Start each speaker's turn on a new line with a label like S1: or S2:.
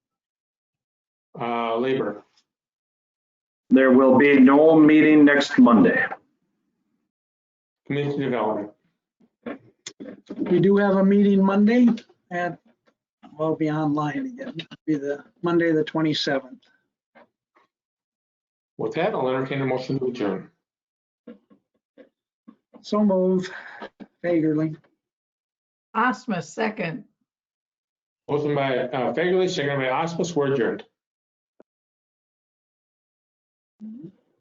S1: Uh, Labor,
S2: There will be no meeting next Monday.
S1: Community Development.
S3: We do have a meeting Monday at, we'll be online again, It'll be the Monday, the 27th.
S1: With that, I'll entertain a motion to adjourn.
S3: So move, Fagerly.
S4: Osmus, second.
S1: Motion by uh, Fagerly, second by Osmus, we're adjourned.